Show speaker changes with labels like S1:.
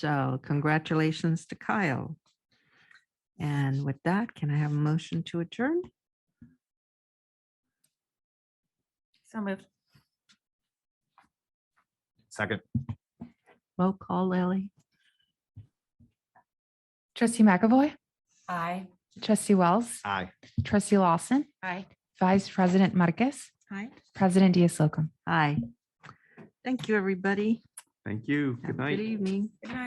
S1: So congratulations to Kyle. And with that, can I have a motion to adjourn?
S2: So moved.
S3: Second.
S1: Roll call, Lily.
S4: Trustee McAvoy,
S2: Aye.
S4: trustee Wells,
S3: Aye.
S4: trustee Lawson,
S2: Aye.
S4: vice president Marquez,
S1: Hi.
S4: president Diaz-Solcom.
S1: Hi. Thank you, everybody.
S3: Thank you.
S1: Have
S3: Good
S1: a Good
S3: night.
S1: evening.
S2: Good night.